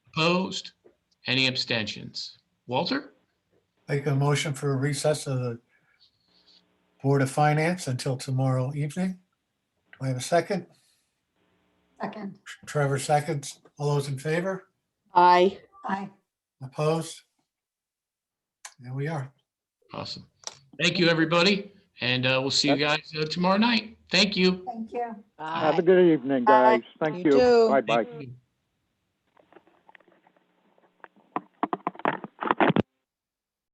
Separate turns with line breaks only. Opposed? Any abstentions? Walter?
Make a motion for a recess of the Board of Finance until tomorrow evening. Do I have a second?
Second.
Trevor seconds. All those in favor?
Aye.
Aye.
Opposed? There we are.
Awesome. Thank you, everybody, and uh, we'll see you guys uh, tomorrow night. Thank you.
Thank you.
Have a good evening,
Bye.
guys. Thank
You
you.
too.
Bye-bye.
Thank you.